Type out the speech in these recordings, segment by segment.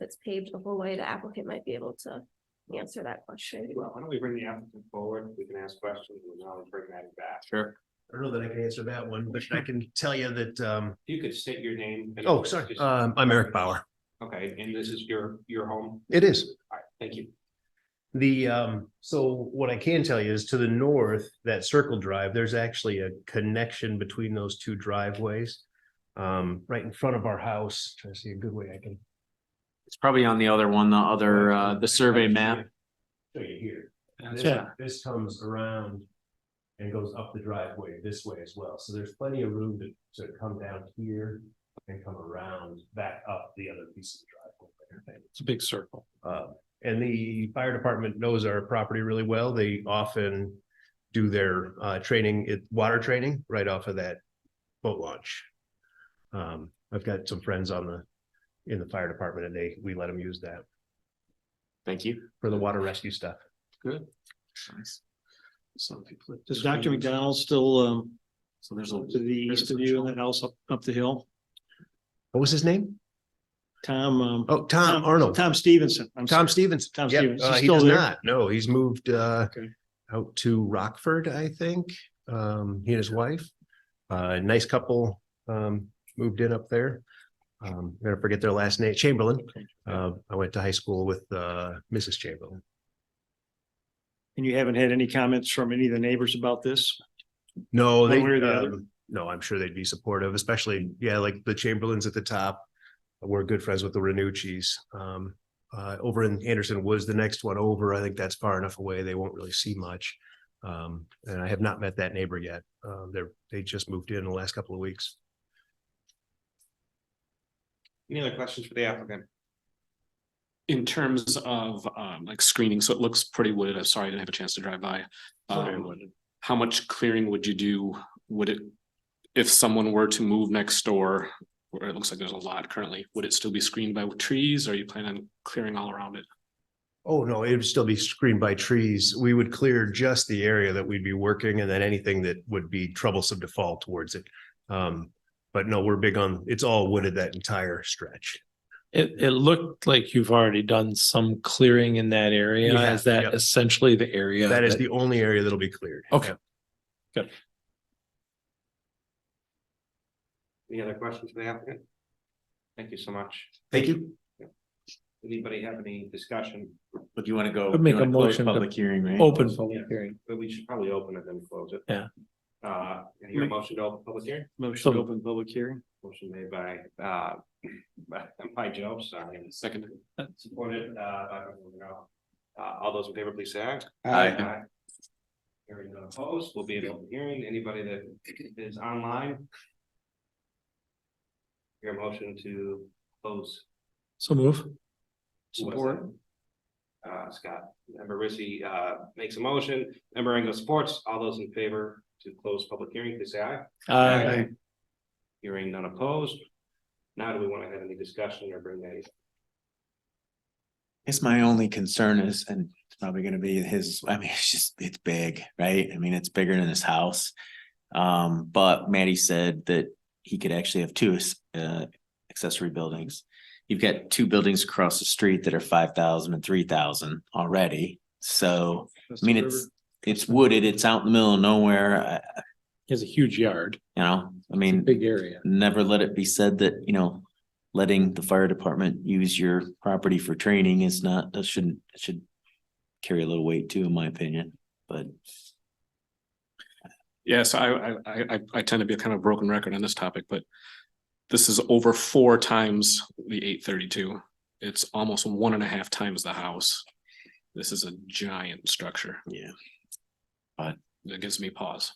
it's paved the whole way, the applicant might be able to answer that question. Well, why don't we bring the applicant forward, we can ask questions, and now we bring that back. Sure. I don't know that I can answer that one, but I can tell you that, um, You could state your name. and- oh, sorry, um, I'm Eric Bauer. Okay, and this is your, your home, It is. all right, thank you. The, um, so what I can tell you is to the north, that circle drive, there's actually a connection between those two driveways. Um, right in front of our house, trying to see a good way I can. It's probably on the other one, the other, uh, the survey map. Show you here. That's This, Yeah. this comes around and goes up the driveway this way as well. So there's plenty of room to, to come down here and come around back up the other piece of the driveway. It's a big circle. Uh, and the fire department knows our property really well. They often do their, uh, training, it, water training right off of that boat launch. Um, I've got some friends on the, in the fire department and they, we let them use that Thank you. for the water rescue stuff. Good. Nice. Some people. Is Dr. McDonald still um So there's a, to the east of you in that house up up the hill? What was his name? Tom um. Oh, Tom Arnold. Tom Stevenson. I'm Tom sorry. Stevens. Tom Yep, Stevens. uh, He's he still does there? not. No, he's moved uh Okay. out to Rockford, I think. Um, he and his wife. Uh, nice couple um moved in up there. Um, I forget their last name, Chamberlain. Uh, I went to high school with uh Mrs. Chamberlain. And you haven't had any comments from any of the neighbors about this? No, One they, way or the other? um, no, I'm sure they'd be supportive, especially, yeah, like the Chamberlains at the top. We're good friends with the Renucci's. Um, uh, over in Anderson Woods, the next one over, I think that's far enough away. They won't really see much. Um, and I have not met that neighbor yet. Uh, they're, they just moved in the last couple of weeks. Any other questions for the applicant? In terms of um like screening, so it looks pretty wooded. I'm sorry, I didn't have a chance to drive by. Um, how much clearing would you do? Would it? If someone were to move next door, where it looks like there's a lot currently, would it still be screened by trees? Or you plan on clearing all around it? Oh, no, it would still be screened by trees. We would clear just the area that we'd be working and then anything that would be troublesome to fall towards it. Um, but no, we're big on, it's all wooded that entire stretch. It, it looked like you've already done some clearing in that area. We have, Is that yep. essentially the area? That is the only area that'll be cleared. Okay. Any other questions for the applicant? Thank you so much. Thank you. Anybody have any discussion? but you want to go? I'd make you wanna a close motion to Public hearing, right? Open public hearing. But we should probably open it and close it. Yeah. Uh, and your motion to open public hearing, Motion to So- open public hearing? motion made by, uh, by- by Joe, sorry. Second, Supported, uh, by, you know, uh, all those in favor, please say aye. Aye. Aye. Hearing none opposed, will be an open hearing, anybody that is online. Your motion to close. So move. Who was that? Uh, Scott, member Rissy, uh, makes a motion, member Engel supports, all those in favor to close public hearing, please say aye. Aye. Hearing none opposed. Now, do we want to have any discussion or bring that? I guess my only concern is, and it's probably gonna be his, I mean, it's just, it's big, right? I mean, it's bigger than his house. Um, but Maddie said that he could actually have two uh accessory buildings. You've got two buildings across the street that are five thousand and three thousand already. So, I mean, it's, it's wooded, it's out in the middle of nowhere, uh, He has a huge yard, you know, I mean big area. never let it be said that, you know, letting the fire department use your property for training is not, that shouldn't, it should carry a little weight too, in my opinion, but. yes, I I I I- I tend to be a kind of broken record on this topic, but. This is over four times the eight thirty-two. It's almost one and a half times the house. This is a giant structure. Yeah. That gives me pause.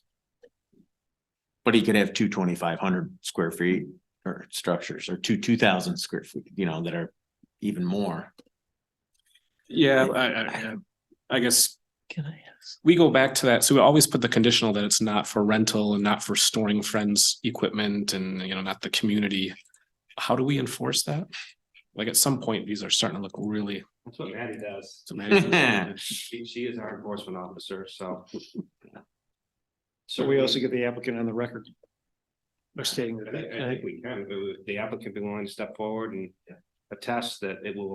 But he could have two twenty-five hundred square feet or structures or two, two thousand square feet, you know, that are even more. Yeah, I, I, I guess Can I ask? we go back to that. So we always put the conditional that it's not for rental and not for storing friends' equipment and, you know, not the community. How do we enforce that? Like at some point, these are starting to look really. That's what Maddie does. She, she is our enforcement officer, so. So we also get the applicant on the record. By stating I that. think, I think we can, but the applicant be willing to step forward and attest that it will